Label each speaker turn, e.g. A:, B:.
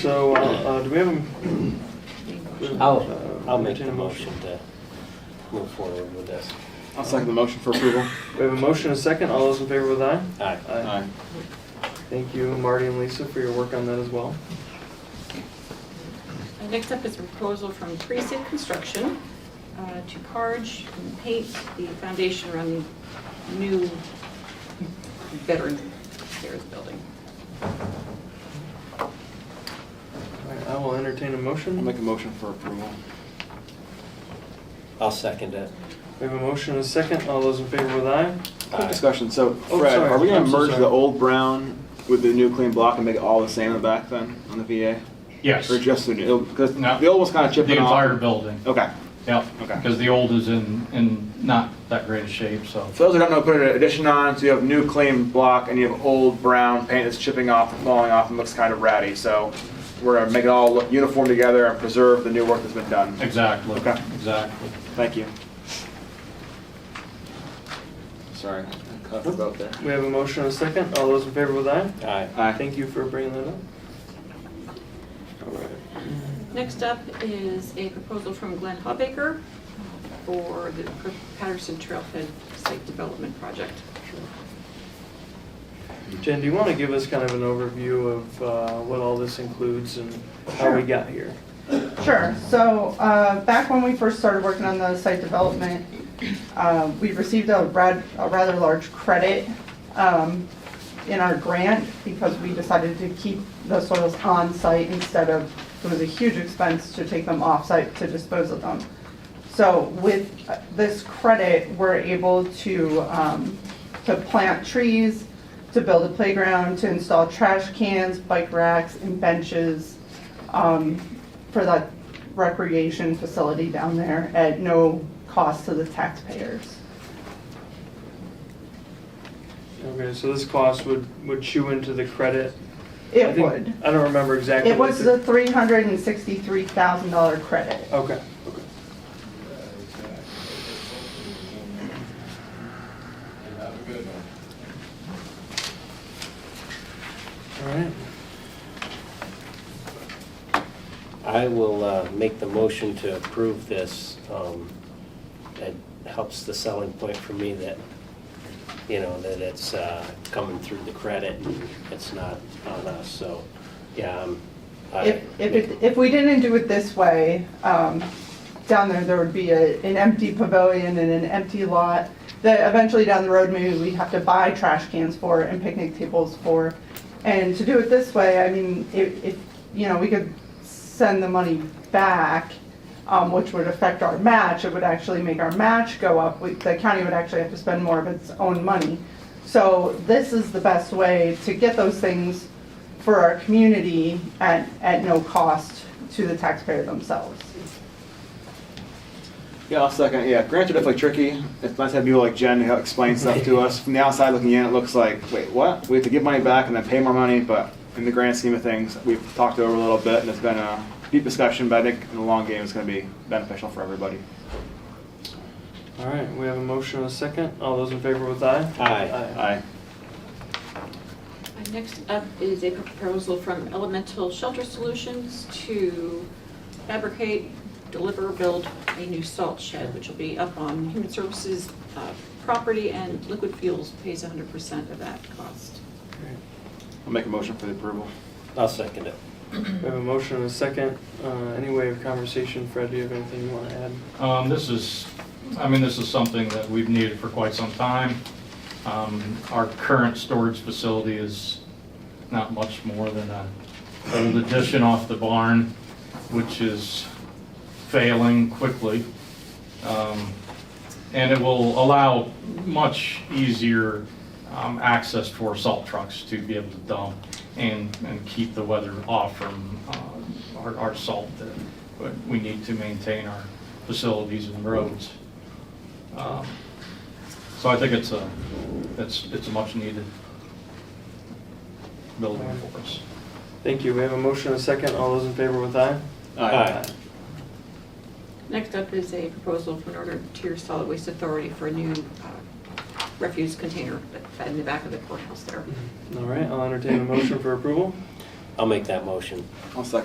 A: So, uh, uh, do we have, a-
B: I'll,
A: Uh,
B: I'll make
A: entertain
B: the
A: a motion.
B: motion to move forward with this.
C: I'll second the motion for approval.
A: we have a motion and a second, all those in favor with aye?
B: Aye.
C: Aye.
A: Thank you, Marty and Lisa, for your work on that as well.
D: Uh, Next up is a proposal from Precinct Construction uh, to carge and paint the foundation around the new veteran affairs building.
A: All right, I will entertain a motion.
C: I'll make a motion for approval.
B: I'll second it.
A: We have a motion and a second, all those in favor with aye?
C: Quick
B: Aye.
C: discussion, so
A: Oh,
C: Fred,
A: sorry.
C: are we
A: I'm
C: gonna
A: so
C: merge
A: sorry.
C: the old brown with the new clean block and make it all the same in the back then, on the VA?
E: Yes.
C: Or just the new, because
E: No.
C: the old was kinda
E: The
C: chipping off?
E: entire building,
C: Okay,
E: yeah.
C: Okay.
E: Because the old is in, in not that great a shape, so.
C: for those who don't know, put an addition on, so you have new clean block and you have old brown paint that's chipping off and falling off and looks kinda ratty, so we're gonna make it all look uniform together and preserve the new work that's been done.
E: Exactly,
C: Okay.
E: exactly.
C: Thank you. Sorry, I cut the boat there.
A: We have a motion and a second, all those in favor with aye?
B: Aye.
C: Aye.
A: Thank you for bringing that up. All right.
D: Next up is a proposal from Glenn Hubbaker for the Patterson Trailhead Site Development Project.
A: Jen, do you want to give us kind of an overview of uh, what all this includes and how we
F: Sure.
A: got here?
F: Sure, so, uh, back when we first started working on the site development, uh, we received a rad, a rather large credit, um, in our grant because we decided to keep the soils on-site instead of, it was a huge expense to take them off-site to dispose of them. So with this credit, we're able to, um, to plant trees, to build a playground, to install trash cans, bike racks, and benches, um, for that recreation facility down there at no cost to the taxpayers.
A: Okay, so this cost would, would chew into the credit? I
F: It
A: think-
F: would.
A: I don't remember exactly.
F: It
A: what
F: was
A: the-
F: a three hundred and sixty-three thousand dollar credit.
A: Okay, okay. All right,
B: I will uh, make the motion to approve this. um, That helps the selling point for me that, you know, that it's uh, coming through the credit and it's not on us, so, yeah. um, I-
F: If, if, it- if we didn't do it this way, um, down there, there would be a, an empty pavilion and an empty lot that eventually down the road, maybe we'd have to buy trash cans for and picnic tables for. And to do it this way, I mean, if, if, you know, we could send the money back, um, which would affect our match, it would actually make our match go up. We- The county would actually have to spend more of its own money. So this is the best way to get those things for our community at, at no cost to the taxpayer themselves.
C: Yeah, I'll second. Yeah, grants are definitely tricky. It's nice to have people like Jen who explain stuff to us. From the outside looking in, it looks like, wait, what? We have to give money back and then pay more money, but in the grand scheme of things, we've talked over a little bit and it's been a deep discussion, but I think in the long game, it's gonna be beneficial for everybody.
A: all right, we have a motion and a second, all those in favor with aye?
B: Aye.
C: Aye.
D: Uh, Next up is a proposal from Elemental Shelter Solutions to fabricate, deliver, build a new salt shed, which will be up on Human Services uh, property, and Liquid Fuels pays 100% of that cost.
C: I'll make a motion for the approval.
B: I'll second it.
A: We have a motion and a second, uh, any way of conversation, Fred, do you have anything you want to add?
E: Um, This is, I mean, this is something that we've needed for quite some time. Um, Our current storage facility is not much more than a old addition off the barn, which is failing quickly. Um, And it will allow much easier um, access for salt trucks to be able to dump and, and keep the weather off from uh, our, our salt that but we need to maintain our facilities and roads. Um, So I think it's a, it's, it's a much needed building for us.
A: Thank you, we have a motion and a second, all those in favor with aye?
B: Aye.
D: Next up is a proposal from Northern Tier Solid Waste Authority for a new uh, refuse container in the back of the courthouse there.
A: All right, I'll entertain a motion for approval.
G: I'll make that motion.
B: I'll second